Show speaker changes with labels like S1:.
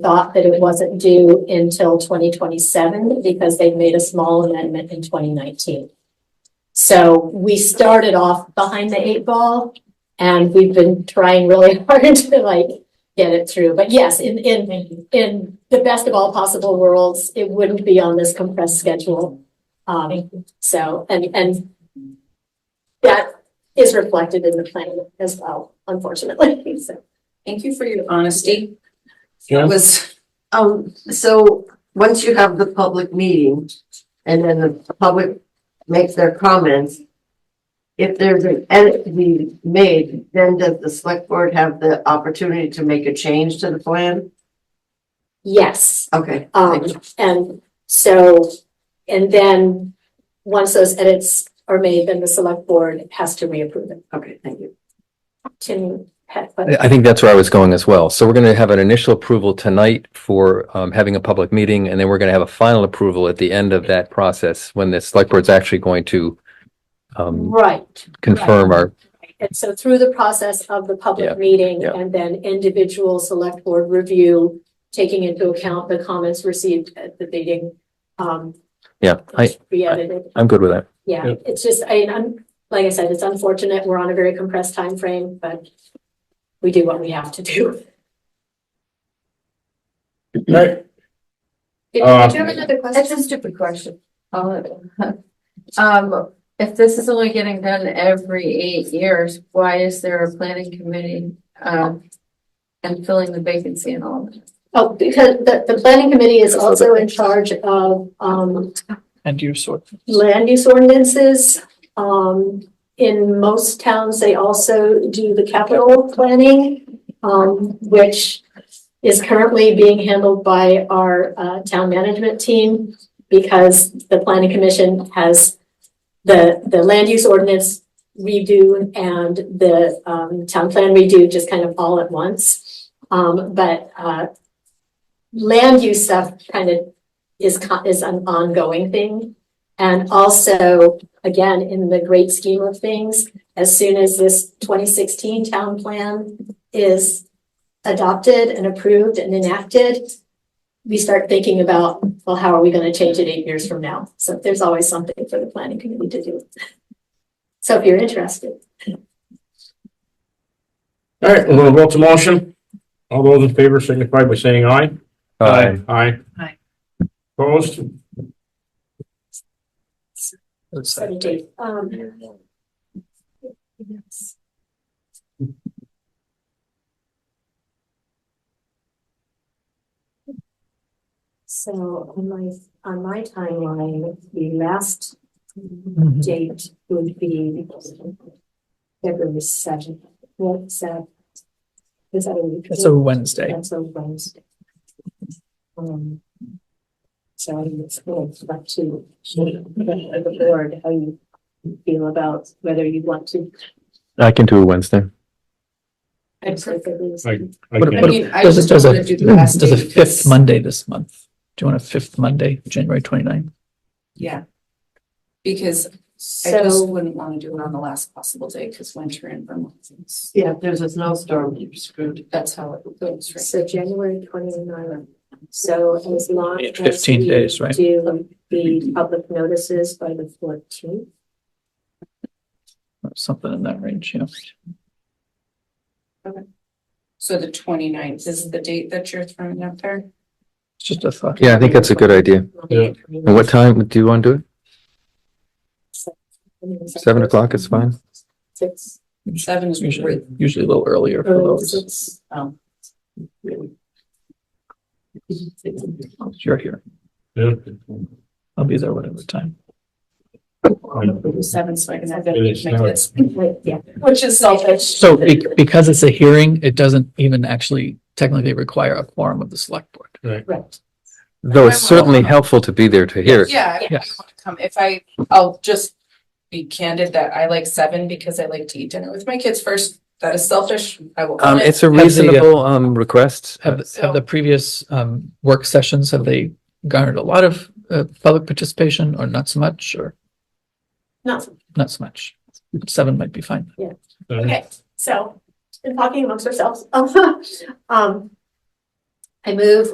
S1: thought that it wasn't due until twenty twenty-seven because they made a small amendment in twenty nineteen. So we started off behind the eight ball and we've been trying really hard to like get it through. But yes, in, in, in the best of all possible worlds, it wouldn't be on this compressed schedule. Um, so, and, and that is reflected in the plan as well, unfortunately, so.
S2: Thank you for your honesty.
S3: Jen?
S4: was, um, so once you have the public meeting and then the public makes their comments, if there's an edit to be made, then does the select board have the opportunity to make a change to the plan?
S1: Yes,
S4: Okay.
S1: um, and so, and then, once those edits are made, then the select board has to reapprove it.
S4: Okay, thank you.
S1: Tim, you had, a
S3: I
S1: question?
S3: I think that's where I was going as well. So we're going to have an initial approval tonight for um, having a public meeting, and then we're going to have a final approval at the end of that process when the select board's actually going to um,
S1: right.
S3: confirm our,
S1: And so through the process of the
S3: Yeah,
S1: public meeting
S3: yeah.
S1: and then individual select board review, taking into account the comments received uh, at the meeting, um.
S3: yeah, I,
S1: Re-edited,
S3: I'm good with that.
S1: yeah, it's just, I, I'm, like I said, it's unfortunate, we're on a very compressed time frame, but we do what we have to do.
S5: Right,
S6: Did
S5: Uh,
S6: did you have another
S7: That's
S6: question?
S7: a stupid question. All of it. Um, if this is only getting done every eight years, why is there a planning committee, um, and filling the vacancy and all of that?
S1: Oh, because the, the planning committee is also in charge of, um,
S8: And you sort.
S1: land use ordinances. Um, in most towns, they also do the capital planning, um, which is currently being handled by our, uh, town management team because the planning commission has the, the land use ordinance redo and the, um, town plan redo just kind of all at once. Um, but, uh, land use stuff kind of is, co- is an ongoing thing. And also, again, in the great scheme of things, as soon as this twenty sixteen town plan is adopted and approved and enacted, we start thinking about, well, how are we gonna change it eight years from now? So there's always something for the planning committee to do. So if you're interested,
S5: all right, we're gonna vote to motion. All those in favor signify by saying aye.
S3: Uh,
S5: Aye.
S2: Aye.
S5: Opposed?
S1: set a date. Um, So on my, on my timeline, the last date would be February seventh. What's that? Is that a week?
S8: It's a Wednesday.
S1: That's a Wednesday. Um. So I think it's going back to the board, how you feel about whether you want to.
S3: I can do a Wednesday.
S1: I'm sorry, February
S5: I, I
S8: What-
S5: can't.
S8: what-
S2: mean, I
S8: does it-
S2: just
S8: does a-
S2: wanna do the last
S8: Does a
S2: day
S8: fifth
S2: because-
S8: Monday this month? Do you want a fifth Monday, January 29th?
S2: Yeah. Because I just
S1: So,
S2: wouldn't want to do it on the last possible day because winter in Vermont is,
S4: Yeah, if there's a snowstorm, you're screwed.
S2: that's how it goes, right?
S1: so January twenty-nine, so as long
S8: Yeah,
S1: as.
S8: 15
S1: we
S8: days, right?
S1: Do the public notices by the fourteenth.
S8: Or Something in that range, yeah.
S2: So the 29th is the date that you're throwing out there?
S8: It's just a thought.
S3: Yeah, I think that's a good idea.
S5: Yeah.
S3: And what time do you want to do Seven o'clock is fine.
S1: Six,
S2: Seven is
S8: Usually,
S2: great.
S8: usually a little earlier for
S1: early
S8: those.
S1: six.
S2: Um,
S8: You're here.
S5: Yeah.
S8: I'll be there whatever time.
S2: do Seven, so I can have that
S5: It is
S2: make
S5: now.
S2: this,
S1: Right, yeah.
S2: which is selfish.
S8: So be- because it's a hearing, it doesn't even actually technically require a quorum of the select board.
S1: Right.
S3: Though it's certainly helpful to be there to hear. it.
S2: Yeah, I- I
S8: Yes.
S2: want to come. If I, I'll just be candid that I like seven because I like to eat dinner with my kids first. That is selfish. I will.
S3: Um,
S2: own it.
S3: it's a
S8: Have the, uh,
S3: reasonable, um, request.
S8: Have, the- have the previous um, work sessions, have they garnered a lot of uh, public participation or not so much or
S1: Not,
S8: not so much? Seven might be fine.
S1: okay, so, in talking amongst ourselves, um, I move